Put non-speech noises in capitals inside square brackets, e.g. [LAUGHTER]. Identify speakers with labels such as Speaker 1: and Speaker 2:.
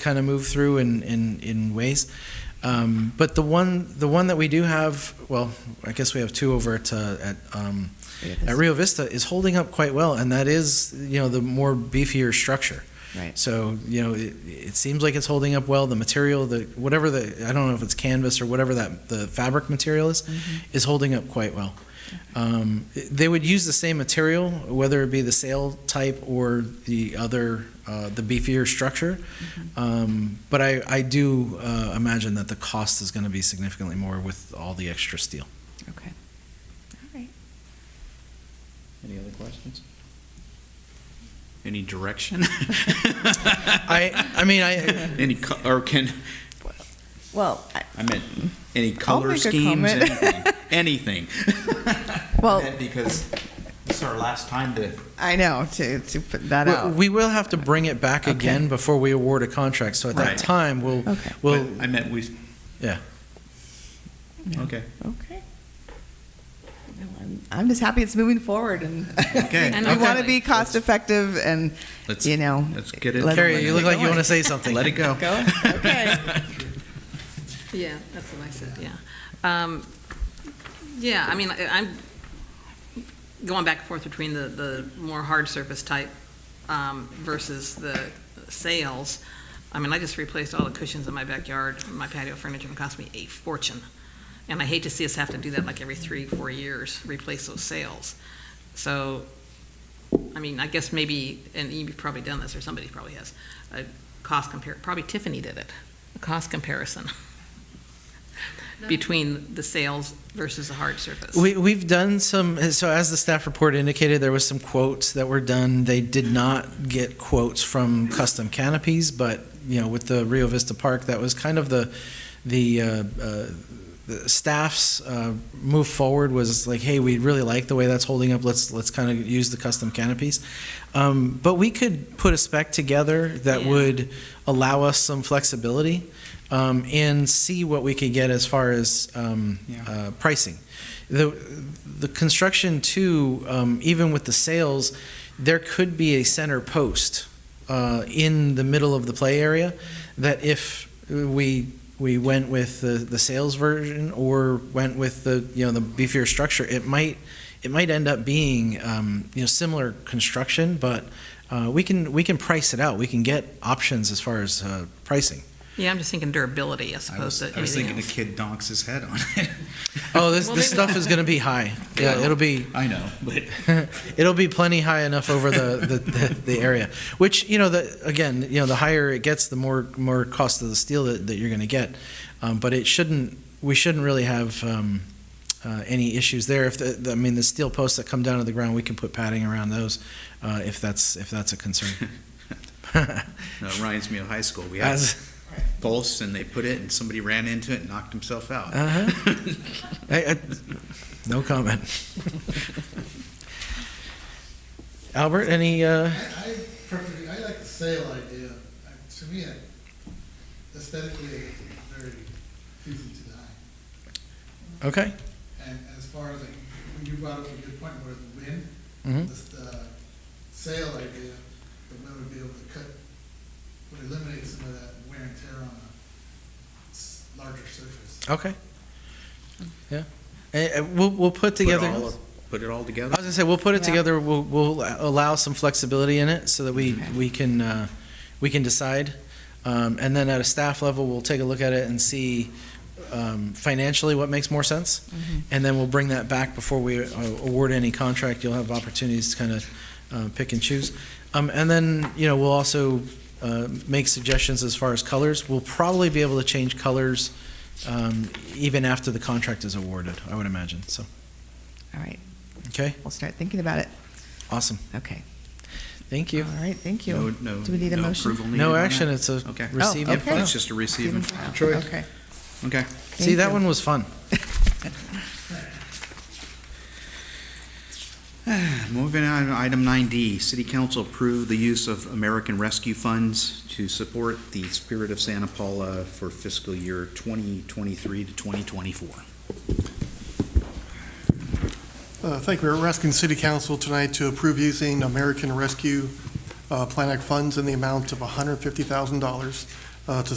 Speaker 1: kind of move through in, in, in ways. Um, but the one, the one that we do have, well, I guess we have two over at, uh, at, um, at Rio Vista is holding up quite well, and that is, you know, the more beefier structure.
Speaker 2: Right.
Speaker 1: So, you know, it, it seems like it's holding up well. The material, the whatever the, I don't know if it's canvas or whatever that the fabric material is, is holding up quite well. Um, it- they would use the same material, whether it be the sail type or the other, uh, the beefier structure. Um, but I, I do uh, imagine that the cost is going to be significantly more with all the extra steel.
Speaker 2: Okay. All right.
Speaker 3: Any other questions?
Speaker 1: [LAUGHS]
Speaker 3: Any direction? [LAUGHS]
Speaker 1: I, I mean, I,
Speaker 3: Any, co- or can,
Speaker 2: Well, I-
Speaker 3: I meant, any color
Speaker 2: make a
Speaker 3: schemes,
Speaker 2: comment.
Speaker 3: anything, anything.
Speaker 2: Well-
Speaker 3: And Because this is our last time to,
Speaker 2: I know to, to put that
Speaker 1: Well,
Speaker 2: out.
Speaker 1: We will have to bring it back
Speaker 2: Okay.
Speaker 1: again before we award a contract, so at that
Speaker 3: Right.
Speaker 1: time, we'll,
Speaker 2: Okay.
Speaker 3: well,
Speaker 1: we'll,
Speaker 3: I meant we,
Speaker 1: yeah.
Speaker 2: Yeah.
Speaker 3: okay.
Speaker 2: Okay. No, I'm, I'm just happy it's moving forward and
Speaker 3: Okay.
Speaker 2: we
Speaker 1: Okay.
Speaker 2: want to be cost effective and
Speaker 3: Let's-
Speaker 2: you know.
Speaker 3: let's get it-
Speaker 2: let-
Speaker 1: Carrie, you look
Speaker 2: let-
Speaker 1: like you want to say something.
Speaker 3: Let it go.
Speaker 2: Go. Okay.
Speaker 4: Yeah, that's what I said, yeah. Um, Yeah, I mean, I- I'm going back and forth between the, the more hard surface type um, versus the sails. I mean, I just replaced all the cushions in my backyard, my patio furniture, and it cost me a fortune. And I hate to see us have to do that like every three, four years, replace those sails. So, I mean, I guess maybe, and you've probably done this, or somebody probably has, a cost compare, probably Tiffany did it, a cost comparison [LAUGHS] between the sails versus the hard surface.
Speaker 1: We, we've done some, so as the staff report indicated, there was some quotes that were done. They did not get quotes from custom canopies, but, you know, with the Rio Vista Park, that was kind of the, the, uh, uh, the staff's uh, move forward was like, hey, we really like the way that's holding up. Let's, let's kind of use the custom canopies. Um, But we could put a spec together that
Speaker 4: Yeah.
Speaker 1: would allow us some flexibility um, and see what we could get as far as um,
Speaker 3: Yeah.
Speaker 1: uh, pricing. The, the construction too, um, even with the sails, there could be a center post uh, in the middle of the play area that if we, we went with the, the sails version or went with the, you know, the beefier structure, it might, it might end up being, um, you know, similar construction, but uh, we can, we can price it out. We can get options as far as uh, pricing.
Speaker 4: Yeah, I'm just thinking durability as
Speaker 3: I
Speaker 4: opposed
Speaker 3: was,
Speaker 4: to
Speaker 3: I was
Speaker 4: anything
Speaker 3: thinking the
Speaker 4: else.
Speaker 3: kid donks his head on it.
Speaker 1: [LAUGHS] Oh, this,
Speaker 4: Well,
Speaker 1: this
Speaker 4: maybe-
Speaker 1: stuff is going to be high. Yeah, it'll be, [LAUGHS]
Speaker 3: I know, but [LAUGHS]
Speaker 1: It'll be plenty high enough over the, the, the, the area, which, you know, the, again, you know, the higher it gets, the more, more cost of the steel that, that you're gonna get. Um, but it shouldn't, we shouldn't really have, um, uh, any issues there. If the- the, I mean, the steel posts that come down to the ground, we can put padding around those, uh, if that's, if that's a concern.
Speaker 3: that reminds me of high school. [LAUGHS] We had
Speaker 1: As,
Speaker 3: posts and they put it and somebody ran into it and knocked himself out. [LAUGHS]
Speaker 1: uh-huh. I- I- no
Speaker 2: [LAUGHS]
Speaker 1: comment. Albert, any, uh,
Speaker 5: I perfectly, I like the sale idea. I- To me, I- aesthetically, it's very pleasing to the eye.
Speaker 1: okay?
Speaker 5: And as far as, like, when you brought up a good point where the wind,
Speaker 1: Mhm.
Speaker 5: this, the sale idea, the wind would be able to cut, would eliminate some of that wear and tear on a s- larger surface.
Speaker 1: Okay. Yeah. Eh, eh, we'll, we'll put
Speaker 3: Put
Speaker 1: together, I
Speaker 3: all-
Speaker 1: was
Speaker 3: Put it all together.
Speaker 1: gonna say, we'll put it
Speaker 2: Yeah.
Speaker 1: together, we'll, we'll allow some flexibility in it so that we,
Speaker 2: Okay.
Speaker 1: we can, uh, we can decide. Um, and then at a staff level, we'll take a look at it and see, um, financially what makes more sense.
Speaker 2: Mm-hmm.
Speaker 1: And then we'll bring that back before we uh, award any contract. You'll have opportunities to kind of, uh, pick and choose. Um, and then, you know, we'll also, uh, make suggestions as far as colors. We'll probably be able to change colors, um, even after the contract is awarded, I would imagine. So,
Speaker 2: [LAUGHS] All right.
Speaker 1: okay,
Speaker 2: We'll start thinking about it.
Speaker 1: awesome.
Speaker 2: Okay.
Speaker 1: Thank you.
Speaker 2: All right. Thank you.
Speaker 3: No, no.
Speaker 2: Do we need a
Speaker 3: no
Speaker 2: motion?
Speaker 3: approval needed on
Speaker 1: No
Speaker 3: that?
Speaker 1: action, it's a
Speaker 3: Okay.
Speaker 1: receive and
Speaker 2: Oh, okay.
Speaker 1: file.
Speaker 3: It's just a receive and file.
Speaker 2: Okay.
Speaker 3: Okay.
Speaker 1: See,
Speaker 2: Thank
Speaker 1: that
Speaker 2: you.
Speaker 1: one was fun.
Speaker 3: Moving on, to item 9D, City Council approved the use of American Rescue Funds to support the Spirit of Santa Paula for fiscal year 2023 to 2024.
Speaker 6: Uh, Thank you. We're asking City Council tonight to approve using American Rescue uh, Plan Act funds in the amount of $150,000 uh, to